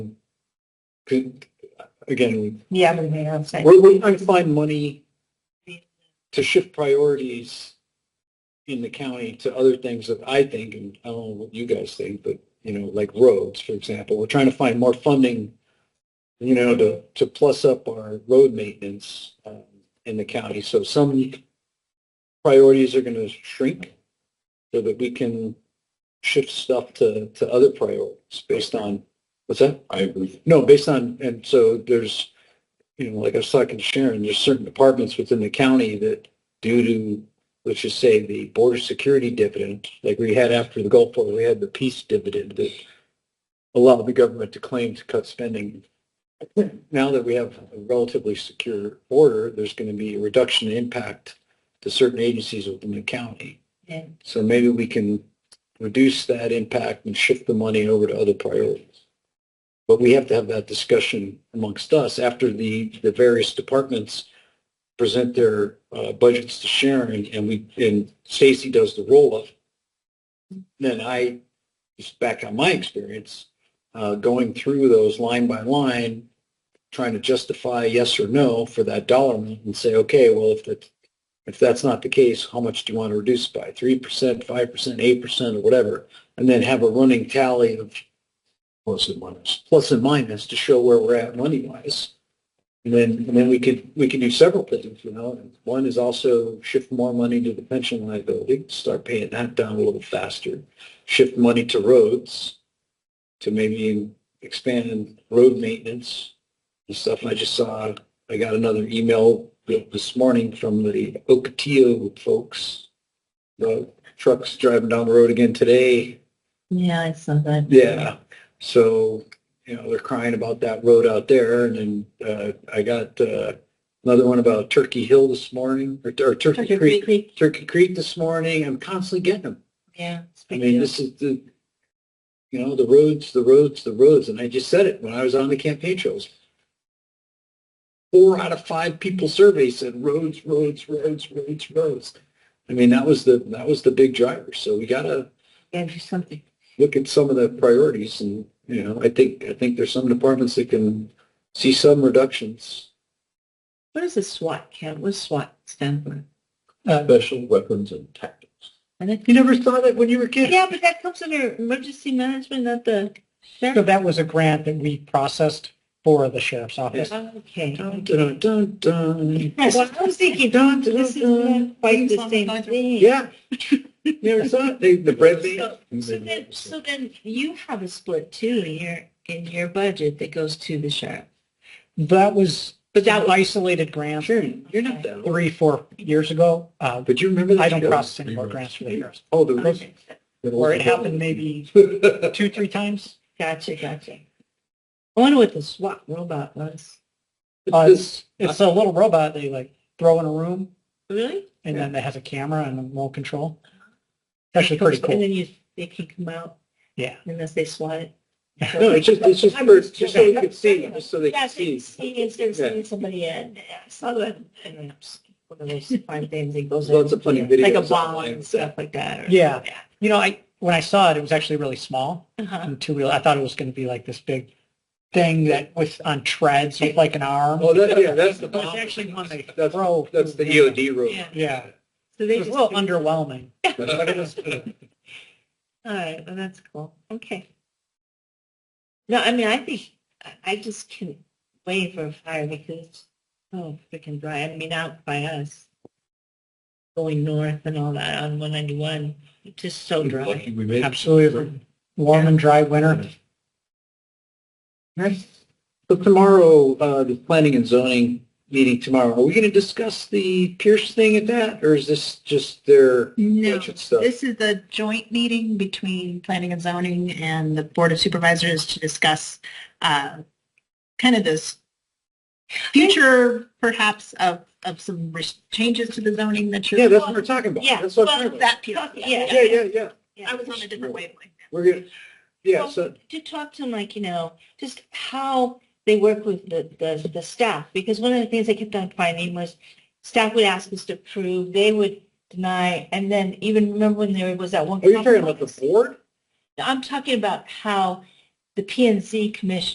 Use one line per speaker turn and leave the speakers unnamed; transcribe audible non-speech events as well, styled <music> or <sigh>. again,
Yeah, we may have said.
we're, we're trying to find money to shift priorities in the county to other things that I think, and I don't know what you guys think, but, you know, like roads, for example, we're trying to find more funding, you know, to, to plus up our road maintenance, um, in the county. So some priorities are going to shrink so that we can shift stuff to, to other priorities based on, what's that?
I agree.
No, based on, and so there's, you know, like I was talking to Sharon, there's certain departments within the county that due to, let's just say, the border security dividend, like we had after the Gulf War, we had the peace dividend that allowed the government to claim to cut spending. Now that we have a relatively secure border, there's going to be a reduction in impact to certain agencies within the county.
Yeah.
So maybe we can reduce that impact and shift the money over to other priorities. But we have to have that discussion amongst us after the, the various departments present their uh, budgets to Sharon and we, and Stacy does the roll up. Then I, just back on my experience, uh, going through those line by line, trying to justify yes or no for that dollar amount and say, okay, well, if the if that's not the case, how much do you want to reduce by? Three percent, five percent, eight percent, or whatever, and then have a running tally of plus and minus, plus and minus to show where we're at money wise. And then, and then we could, we could do several things, you know. One is also shift more money to the pension liability, start paying that down a little faster. Shift money to roads, to maybe expand road maintenance and stuff. I just saw I got another email this morning from the Ocotillo folks. The trucks driving down the road again today.
Yeah, I saw that.
Yeah. So, you know, they're crying about that road out there. And then uh, I got uh, another one about Turkey Hill this morning, or, or Turkey,
Turkey
Creek.
Creek,
Turkey Creek this morning. I'm constantly getting them.
yeah. it's
I
big
mean,
deal.
this is the, you know, the roads, the roads, the roads. And I just said it when I was on the campaign trails. Four out of five people surveyed said roads, roads, roads, roads, roads. I mean, that was the, that was the big driver. So we gotta
Yeah, do something.
look at some of the priorities and, you know, I think, I think there's some departments that can see some reductions.
What is a SWAT count? What does SWAT stand for?
Special weapons and tactics.
I think-
Uh, You never saw that when you were a kid?
Yeah, but that comes under emergency management, not the
So
sheriff.
that was a grant that we processed for the sheriff's office.
Okay.
Dun, dun, dun, dun.
Well, I was thinking,
Dun, dun,
this is
dun.
not quite the
Things on the
same
budget.
thing.
Yeah. <laughs> You never saw it? They, the bread they.
So so then, so then you have a split too in your, in your budget that goes to the sheriff.
That was
But that
an
was,
isolated grant
Sharon, you're not down.
three, four years ago. Uh,
But you remember that?
I don't
show?
process any more grants for the sheriff's.
Oh, the
Okay. Or it
<laughs>
happened maybe two, three times.
gotcha, gotcha. I wonder what the SWAT robot was.
Uh,
This-
It's a little robot they like throw in a room
Really?
and then it has a camera and a remote control. Actually pretty
And
cool.
then you, they can come out
Yeah. <laughs>
unless they SWAT it.
No, it's just, it's just
I'm
for, just so you
joking.
could see, just so they
Yeah,
could
so you
see.
can see if there's
Yeah.
seeing somebody in. I saw that. And then it's one of those fun things that goes.
Lots
in,
of funny
Like a
videos
ball
online.
and stuff like that. or-
Yeah. You know, I, when I saw it, it was actually really small
Uh-huh.
and two wheel. I thought it was going to be like this big thing that was on treads with like an arm.
Oh, that, yeah, that's the.
But <laughs> it's actually one they
That's,
throw.
that's the E
through
EOD room.
Yeah.
Yeah.
So
It
they
was
just.
a little
do-
underwhelming.
All right, well, that's cool. Okay. No, I mean, I think, I- I just can't wait for a fire because, it's so freaking dry. I mean, out by us, going north and all that on 191, it's just so dry.
Lucky we made it.
Absolutely. Warm and dry winter.
Right. So tomorrow, uh, the planning and zoning meeting tomorrow, are we going to discuss the Pierce thing at that? Or is this just their
No,
budget stuff?
this is the joint meeting between planning and zoning and the Board of Supervisors to discuss uh, kind of this future perhaps of, of some res- changes to the zoning that you're.
Yeah, that's what we're talking about.
Yeah,
That's what I'm
well,
talking about.
that piece, yeah.
Yeah, yeah, yeah.
I was on a different wavelength.
We're going to, yeah,
Well,
so,
To talk to them like, you know, just how they work with the, the, the staff, because one of the things I kept on finding was staff would ask us to approve, they would deny, and then even remember when there was that one.
are you talking about the
compromise?
board?
I'm talking about how the P and Z commission